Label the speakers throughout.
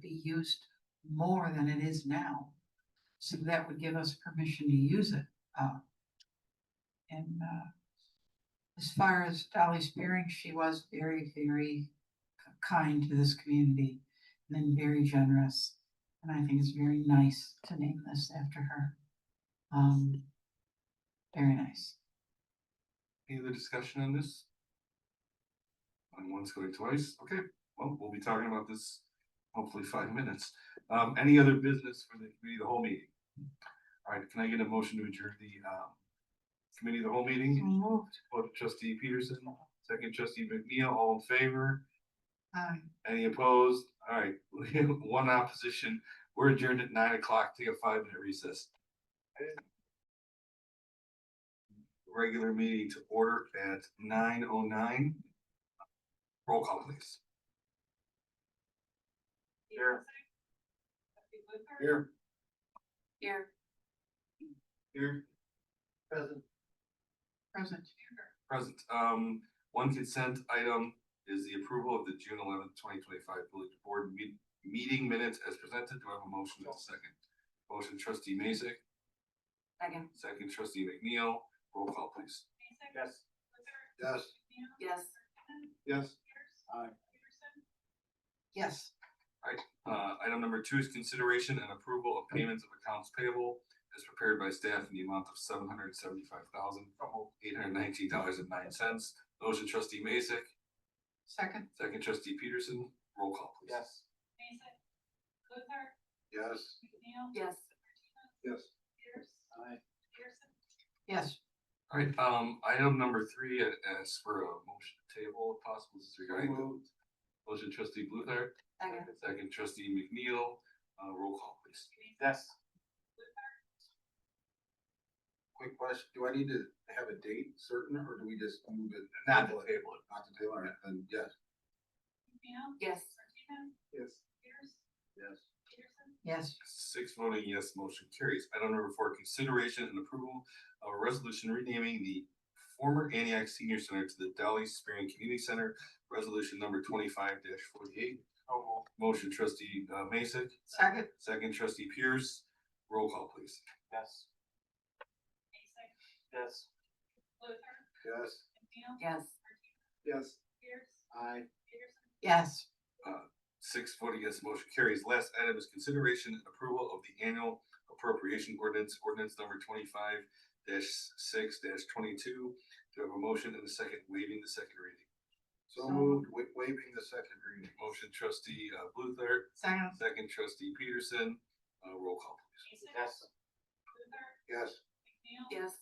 Speaker 1: be used more than it is now. So that would give us permission to use it, uh. And, uh, as far as Dolly Spearing, she was very, very k- kind to this community and then very generous. And I think it's very nice to name this after her. Um, very nice.
Speaker 2: Any other discussion on this? On once going twice, okay, well, we'll be talking about this hopefully five minutes. Um, any other business for the committee, of the whole meeting? Alright, can I get a motion to adjourn the um committee, of the whole meeting,
Speaker 1: Moved.
Speaker 2: Vote trustee Peterson, second trustee McNeil, all in favor?
Speaker 1: Aye.
Speaker 2: Any opposed? Alright, one opposition, we're adjourned at nine o'clock, take a five minute recess. Regular meeting to order at nine oh nine. Roll call please. Here. Here.
Speaker 1: Here,
Speaker 2: Here. Present.
Speaker 1: present.
Speaker 2: Present, um, one consent item is the approval of the June eleventh, twenty twenty-five village board meet, meeting minutes as presented. Do I have a motion and a second? Motion trustee Mason,
Speaker 1: Second.
Speaker 2: second trustee McNeil, roll call please.
Speaker 3: Yes.
Speaker 2: Yes.
Speaker 1: Yes.
Speaker 2: Yes.
Speaker 1: Yes.
Speaker 2: Uh, item number two is consideration and approval of payments of accounts payable as prepared by staff in the amount of seven hundred seventy-five thousand, eight hundred nineteen dollars and nine cents. Motion trustee Mason,
Speaker 1: Second.
Speaker 2: second trustee Peterson, roll call please.
Speaker 3: Yes.
Speaker 4: Mason. Luther.
Speaker 3: Yes.
Speaker 4: McNeil.
Speaker 1: Yes.
Speaker 4: Martinez.
Speaker 3: Yes.
Speaker 4: Pierce.
Speaker 3: Aye.
Speaker 4: Pearson.
Speaker 1: Yes.
Speaker 2: Alright, um, item number three, uh, as for a motion to table, if possible, is regarding the
Speaker 3: Moved.
Speaker 2: motion trustee Bluthart, second trustee McNeil, uh, roll call please.
Speaker 4: Mason.
Speaker 3: Yes.
Speaker 4: Luther.
Speaker 3: Quick question, do I need to have a date certain or do we just move it?
Speaker 2: Not to
Speaker 3: Table
Speaker 2: table
Speaker 3: it.
Speaker 2: it.
Speaker 3: Not to table it, and yes.
Speaker 4: McNeil.
Speaker 1: Yes.
Speaker 4: Martinez.
Speaker 3: Yes.
Speaker 4: Pierce.
Speaker 3: Yes.
Speaker 4: Peterson.
Speaker 1: Yes.
Speaker 2: Six voting yes, motion carries. Item number four, consideration and approval of a resolution renaming the former Antioch Senior Center to the Dolly Spearing Community Center, resolution number twenty-five forty-eight. Motion trustee, uh, Mason,
Speaker 1: Second.
Speaker 2: second trustee Pierce, roll call please.
Speaker 3: Yes.
Speaker 4: Mason.
Speaker 3: Yes.
Speaker 4: Luther.
Speaker 3: Yes.
Speaker 4: McNeil.
Speaker 1: Yes.
Speaker 4: Martinez.
Speaker 3: Yes.
Speaker 4: Pierce.
Speaker 3: Aye.
Speaker 4: Peterson.
Speaker 1: Yes.
Speaker 2: Six voting yes, motion carries. Last item is consideration and approval of the annual appropriation ordinance, ordinance number twenty-five six twenty-two. Do I have a motion and a second waiving the second reading?
Speaker 3: So
Speaker 1: So
Speaker 3: moved, wa- waiving the second reading.
Speaker 2: Motion trustee uh, Luther,
Speaker 1: Second.
Speaker 2: second trustee Peterson, uh, roll call please.
Speaker 4: Mason. Luther.
Speaker 3: Yes.
Speaker 4: McNeil.
Speaker 1: Yes.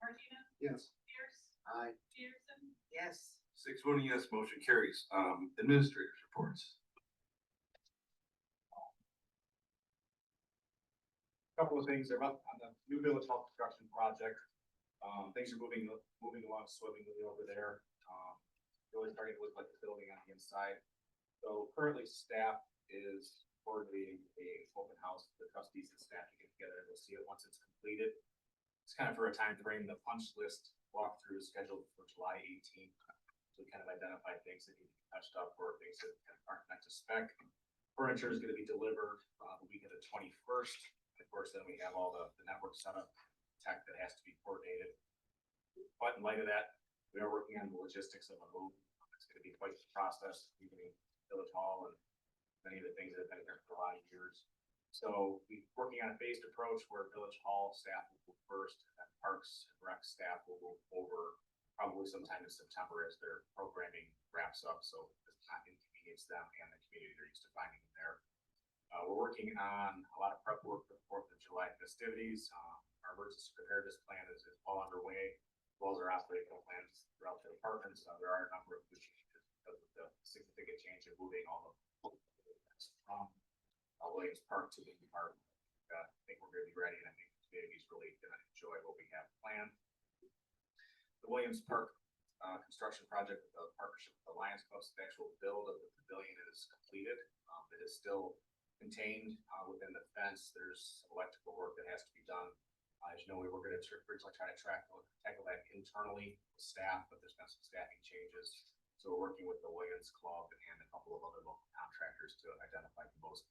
Speaker 4: Martinez.
Speaker 3: Yes.
Speaker 4: Pierce.
Speaker 3: Aye.
Speaker 4: Peterson.
Speaker 1: Yes.
Speaker 2: Six voting yes, motion carries. Um, administrators reports.
Speaker 5: couple of things, they're up on the new village health construction project. Um, things are moving, moving along swimmingly over there. Um, really starting to look like the building on the inside. So currently staff is coordinating a open house for the trustees and staff to get together. We'll see it once it's completed. It's kind of for a time frame. the punch list walkthrough is scheduled for July eighteenth. To kind of identify things that need to be touched up or things that kind of aren't up to spec. Furniture is gonna be delivered, uh, the week of the twenty-first. Of course, then we have all the, the network setup tech that has to be coordinated. But in light of that, we are working on the logistics of a move. It's gonna be quite the process, even Village Hall and many of the things that have been there for a lot of years. So we, working on a phased approach where Village Hall staff will go first, and then Parks and Rec staff will move over probably sometime in September as their programming wraps up, so it's not inconvenience them and the community they're used to finding there. Uh, we're working on a lot of prep work for the Fourth of July festivities. Um, our emergency preparedness plan is, is well underway, as well as our operational plans throughout the departments. Uh, there are a number of new changes because of the significant change of moving all of from uh, Williams Park to Lincoln Park. Uh, I think we're gonna be ready and I think the community's really gonna enjoy what we have planned. The Williams Park, uh, construction project, the partnership with the Lions Club, the actual build of the pavilion is completed. Um, it is still contained uh, within the fence. There's some electrical work that has to be done. Uh, As you know, we were gonna tr- originally try to track, tackle that internally with staff, but there's been some staffing changes. So we're working with the Williams Club and a couple of other local contractors to identify the most